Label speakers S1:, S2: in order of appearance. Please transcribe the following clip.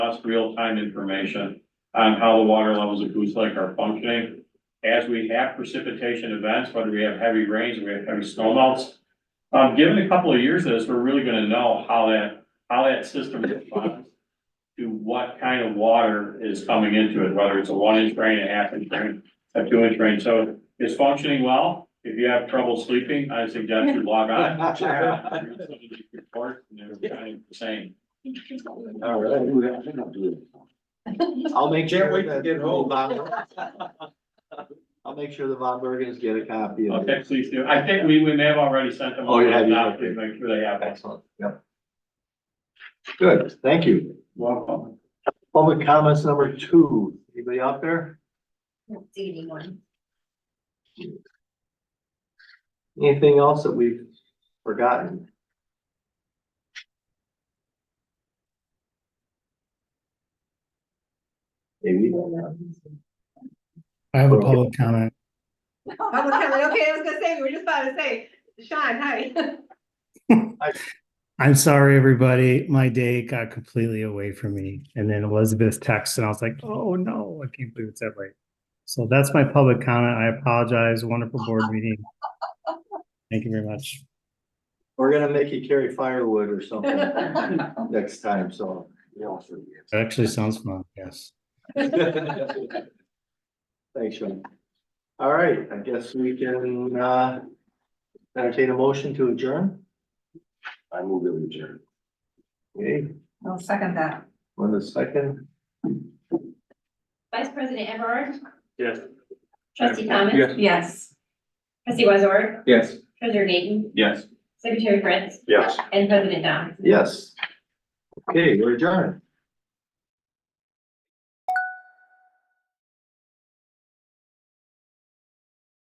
S1: us real-time information on how the water levels of Goose Lake are functioning. As we have precipitation events, whether we have heavy rains, or we have heavy snowmelts. Um, given a couple of years of this, we're really gonna know how that, how that system responds to what kind of water is coming into it, whether it's a one-inch drain, a half-inch drain, a two-inch drain. So it's functioning well. If you have trouble sleeping, I suggest you log on. Read some of these reports, and they're kind of the Same.
S2: All right. I'll make sure.
S3: Can't wait to
S2: that
S3: get home.
S2: Von- I'll make sure the Von Bergens get a copy of
S1: Okay,
S2: it.
S1: please do. I think we, we may have already sent them.
S2: Oh, you have, you have.
S1: out. Please Make sure they have one.
S2: Excellent, yep. Good, thank you.
S1: Welcome.
S2: Public comments number two, anybody out there?
S4: Don't see anyone.
S2: Anything else that we've forgotten? Maybe.
S5: I have a public comment.
S4: I was kinda like, okay, I was gonna say, we were just about to say, Sean, hi.
S5: I'm sorry, everybody. My day got completely away from me. And then Elizabeth texted and I was like, oh no, I can't believe it's that late. So that's my public comment. I apologize. Wonderful board meeting. Thank you very much.
S2: We're gonna make you carry firewood or something next time, so.
S5: It actually sounds fun. Yes.
S2: Thanks, Sean. All right, I guess we can, uh, entertain a motion to adjourn. I move to adjourn. Okay,
S4: I'll second that.
S2: one second.
S6: Vice President Everard,
S1: Yes.
S6: trustee Thomas,
S3: Yes.
S4: Yes.
S6: trustee Wazor,
S3: Yes.
S6: treasurer Gaten,
S1: Yes.
S6: secretary Prince,
S3: Yes.
S6: and president Dom.
S2: Yes. Okay, we're adjourned.